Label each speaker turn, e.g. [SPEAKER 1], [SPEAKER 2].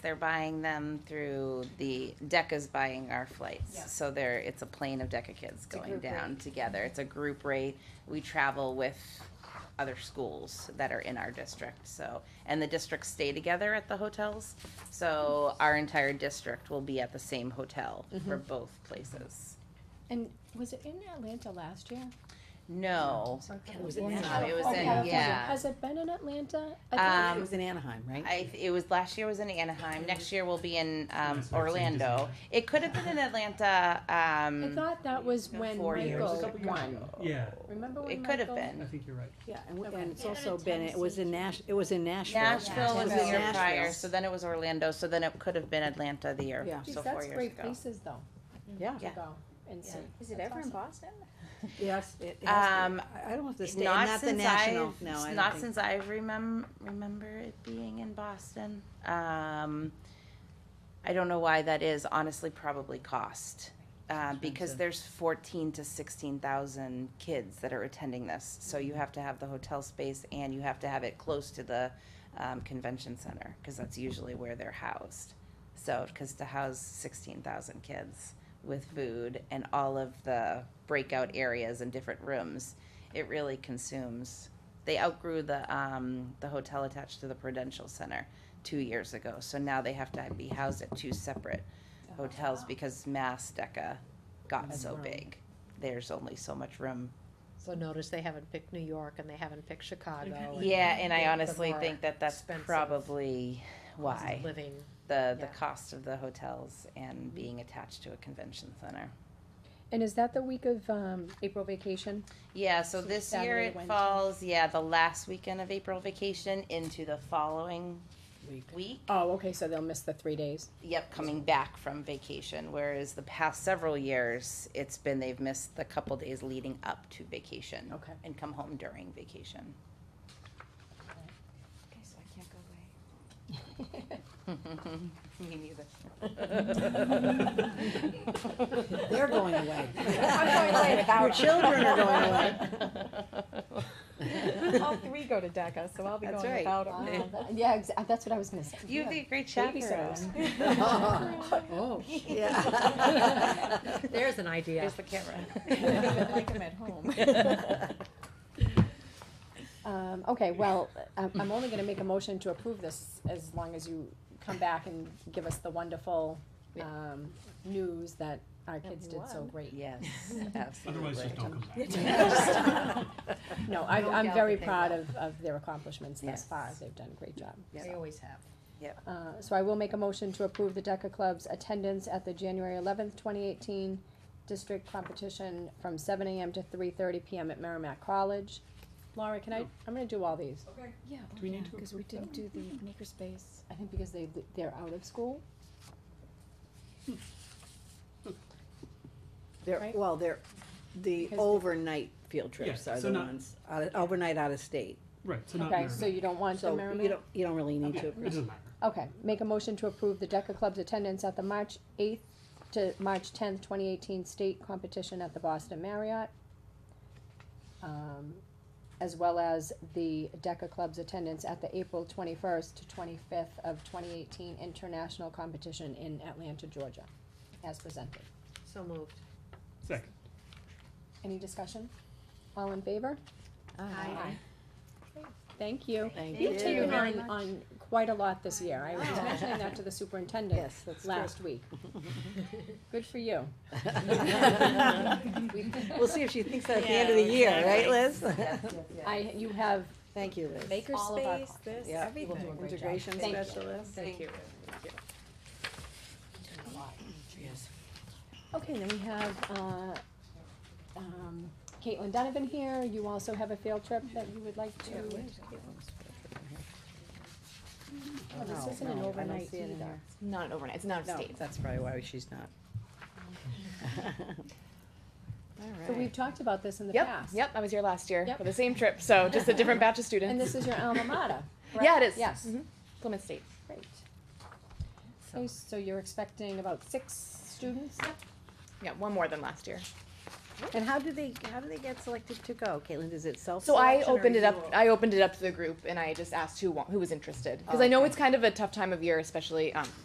[SPEAKER 1] They're buying them through the, DECA's buying our
[SPEAKER 2] Yeah.
[SPEAKER 1] flights. So there, it's a plane of DECA kids
[SPEAKER 2] a
[SPEAKER 1] going
[SPEAKER 2] group
[SPEAKER 1] down together. It's a group rate. We travel with other schools that are in our district, so, and the districts stay together at the hotels. So our entire district will be at the same hotel for both places.
[SPEAKER 3] And was it in Atlanta last year?
[SPEAKER 1] No,
[SPEAKER 2] It was in
[SPEAKER 3] California.
[SPEAKER 1] Anaheim. It was
[SPEAKER 3] Oh,
[SPEAKER 1] in-
[SPEAKER 3] California.
[SPEAKER 1] yeah.
[SPEAKER 3] Has it been in Atlanta? I
[SPEAKER 1] Um,
[SPEAKER 3] thought-
[SPEAKER 2] It was in Anaheim, right?
[SPEAKER 1] I, it was last year was in Anaheim. Next year will be in um, Orlando. It could have been in Atlanta.
[SPEAKER 3] I
[SPEAKER 1] Um,
[SPEAKER 3] thought that was when
[SPEAKER 1] four years. It was a
[SPEAKER 3] Michael
[SPEAKER 4] couple years
[SPEAKER 3] won.
[SPEAKER 4] ago. Yeah,
[SPEAKER 3] Remember when
[SPEAKER 1] it could have
[SPEAKER 3] Michael-
[SPEAKER 4] I
[SPEAKER 1] been.
[SPEAKER 4] think you're right.
[SPEAKER 2] Yeah, and, w-
[SPEAKER 3] Okay.
[SPEAKER 2] and it's also been, it was in Nash, it was in Nashville.
[SPEAKER 1] Nashville
[SPEAKER 2] It
[SPEAKER 1] was
[SPEAKER 2] in
[SPEAKER 1] the year
[SPEAKER 2] Nashville.
[SPEAKER 1] prior, so then it was Orlando, so then it could have been Atlanta the year,
[SPEAKER 2] Yeah.
[SPEAKER 3] Geez,
[SPEAKER 1] so four
[SPEAKER 3] that's
[SPEAKER 1] years
[SPEAKER 3] great
[SPEAKER 1] ago.
[SPEAKER 3] places though Mm,
[SPEAKER 2] Yeah,
[SPEAKER 3] to
[SPEAKER 1] Yeah.
[SPEAKER 3] go and see.
[SPEAKER 5] Is it
[SPEAKER 3] That's
[SPEAKER 5] ever in
[SPEAKER 3] awesome.
[SPEAKER 5] Boston?
[SPEAKER 2] yes, it has been.
[SPEAKER 1] Um,
[SPEAKER 2] I I don't know if the state,
[SPEAKER 1] Not
[SPEAKER 2] not the
[SPEAKER 1] since
[SPEAKER 2] national,
[SPEAKER 1] I've-
[SPEAKER 2] no, I
[SPEAKER 1] Not
[SPEAKER 2] don't think.
[SPEAKER 1] since I remem- remember it being in Boston. Um, I don't know why that is, honestly, probably cost. Uh, because
[SPEAKER 2] Expensive.
[SPEAKER 1] there's fourteen to sixteen thousand kids that are attending this, so you have to have the hotel space and you have to have it close to the, um, convention center, cause that's usually where they're housed. So, cause to house sixteen thousand kids with food and all of the breakout areas and different rooms, it really consumes. They outgrew the, um, the hotel attached to the Prudential Center two years ago, so now they have to be housed at two separate hotels because Mass DECA got so big. There's only so much room.
[SPEAKER 6] So notice they haven't picked New York and they haven't picked Chicago. Oh, and
[SPEAKER 1] Yeah, and I
[SPEAKER 6] Yeah, the
[SPEAKER 1] honestly
[SPEAKER 6] more
[SPEAKER 1] think that that's
[SPEAKER 6] expensive
[SPEAKER 1] probably
[SPEAKER 6] cost of
[SPEAKER 1] why,
[SPEAKER 6] Living.
[SPEAKER 1] the, the
[SPEAKER 6] yeah. Mm-hmm.
[SPEAKER 1] cost of the hotels and being attached to a convention center.
[SPEAKER 3] And is that the week of um, April vacation?
[SPEAKER 1] Yeah, so
[SPEAKER 3] So
[SPEAKER 1] this year
[SPEAKER 3] Saturday,
[SPEAKER 1] it
[SPEAKER 3] Wednesday.
[SPEAKER 1] falls, yeah, the last weekend of April vacation into the following
[SPEAKER 2] Week.
[SPEAKER 1] week.
[SPEAKER 3] Oh, okay, so they'll miss the three days.
[SPEAKER 1] Yep, coming back from vacation, whereas the past several years, it's been, they've missed the couple days leading up to vacation
[SPEAKER 3] Okay.
[SPEAKER 1] and come home during vacation.
[SPEAKER 5] Okay, so I can't go away.
[SPEAKER 1] Me neither.
[SPEAKER 2] They're going away.
[SPEAKER 5] I'm going away
[SPEAKER 2] Your children are going away.
[SPEAKER 5] All three go to DECA, so I'll be
[SPEAKER 1] That's
[SPEAKER 5] going
[SPEAKER 1] right.
[SPEAKER 5] without them.
[SPEAKER 3] Yeah, exa- that's what I was gonna say.
[SPEAKER 1] You'd be a great chaperone.
[SPEAKER 3] Babysitters.
[SPEAKER 2] Oh, yeah.
[SPEAKER 6] There's an idea.
[SPEAKER 1] Here's the camera.
[SPEAKER 5] Like them at home.
[SPEAKER 3] Um, okay, well, I'm, I'm only gonna make a motion to approve this as long as you come back and give us the wonderful, um, news that our kids did so
[SPEAKER 5] won.
[SPEAKER 3] great.
[SPEAKER 1] Yes,
[SPEAKER 4] Otherwise,
[SPEAKER 1] absolutely.
[SPEAKER 4] just don't come back.
[SPEAKER 3] No, I,
[SPEAKER 6] No
[SPEAKER 3] I'm
[SPEAKER 6] doubt
[SPEAKER 3] very
[SPEAKER 6] that they
[SPEAKER 3] proud of, of their accomplishments thus
[SPEAKER 1] Yes.
[SPEAKER 3] far, they've done a great job.
[SPEAKER 6] They always have.
[SPEAKER 3] Uh, so I will make a motion to approve the DECA Club's attendance at the January eleventh, twenty eighteen district competition from seven AM to three thirty PM at Merrimack College. Laura, can I, I'm gonna do all these.
[SPEAKER 5] Yeah,
[SPEAKER 4] Do we need to
[SPEAKER 5] because we didn't do the makerspace.
[SPEAKER 3] I think because they, they're out of school.
[SPEAKER 2] They're,
[SPEAKER 3] Right?
[SPEAKER 2] well, they're, the
[SPEAKER 3] Because-
[SPEAKER 2] overnight field trips
[SPEAKER 4] Yeah,
[SPEAKER 2] are
[SPEAKER 4] so
[SPEAKER 2] the
[SPEAKER 4] not-
[SPEAKER 2] ones, out of- overnight out of state.
[SPEAKER 4] Right, so not
[SPEAKER 3] Okay, so
[SPEAKER 4] Merrimack.
[SPEAKER 3] you don't want the
[SPEAKER 2] So you
[SPEAKER 3] Merrimack?
[SPEAKER 2] don't, you don't really need
[SPEAKER 4] Yeah,
[SPEAKER 2] to.
[SPEAKER 4] It doesn't matter.
[SPEAKER 3] Okay, make a motion to approve the DECA Club's attendance at the March eighth to March tenth, twenty eighteen state competition at the Boston Marriott. Um, as well as the DECA Club's attendance at the April twenty-first to twenty-fifth of twenty eighteen international competition in Atlanta, Georgia, as presented.
[SPEAKER 6] So moved.
[SPEAKER 4] Second.
[SPEAKER 3] Any discussion? All in favor?
[SPEAKER 1] Oh,
[SPEAKER 6] Aye.
[SPEAKER 3] Thank you.
[SPEAKER 2] Thank
[SPEAKER 3] You've
[SPEAKER 2] you. Oh.
[SPEAKER 3] taken
[SPEAKER 6] Very
[SPEAKER 3] on, on quite a lot this year. I was mentioning that to the superintendent
[SPEAKER 2] Yes, that's
[SPEAKER 3] last week. Good for you.
[SPEAKER 2] We'll see if she thinks that at the end of the year, right, Liz?
[SPEAKER 3] I, you have
[SPEAKER 2] Thank you, Liz.
[SPEAKER 3] all of our.
[SPEAKER 5] Makerspace,
[SPEAKER 3] clients.
[SPEAKER 5] this,
[SPEAKER 2] Yeah, we'll do a
[SPEAKER 5] everything.
[SPEAKER 6] great job.
[SPEAKER 2] Integration
[SPEAKER 3] Thank you.
[SPEAKER 2] specialist.
[SPEAKER 6] Thank you.
[SPEAKER 3] Okay, then we have, uh, um, Caitlin Donovan here. You also have a field trip that you would like to. Oh,
[SPEAKER 2] No,
[SPEAKER 3] This isn't an
[SPEAKER 2] no, I don't
[SPEAKER 3] overnight
[SPEAKER 2] see it in
[SPEAKER 3] either.
[SPEAKER 2] here.
[SPEAKER 5] Not an overnight, it's not
[SPEAKER 2] No, that's probably why she's not.
[SPEAKER 3] So we've talked about this in the
[SPEAKER 7] Yep,
[SPEAKER 3] past.
[SPEAKER 7] yep, I was here last year
[SPEAKER 3] Yep.
[SPEAKER 7] for the same trip, so just a different batch of students.
[SPEAKER 3] And this is your alma mater.
[SPEAKER 7] Yeah, it is.
[SPEAKER 3] Yes.
[SPEAKER 7] Mhm. Plymouth State.
[SPEAKER 3] Great. Okay, so you're expecting about six students?
[SPEAKER 7] Yeah, one more than last year.
[SPEAKER 2] And how do they, how do they get selected to go? Caitlin, is it self?
[SPEAKER 7] So I opened it up. I opened it up to the group, and I just asked who wa- who was interested because I know it's kind of a tough time of year, especially um,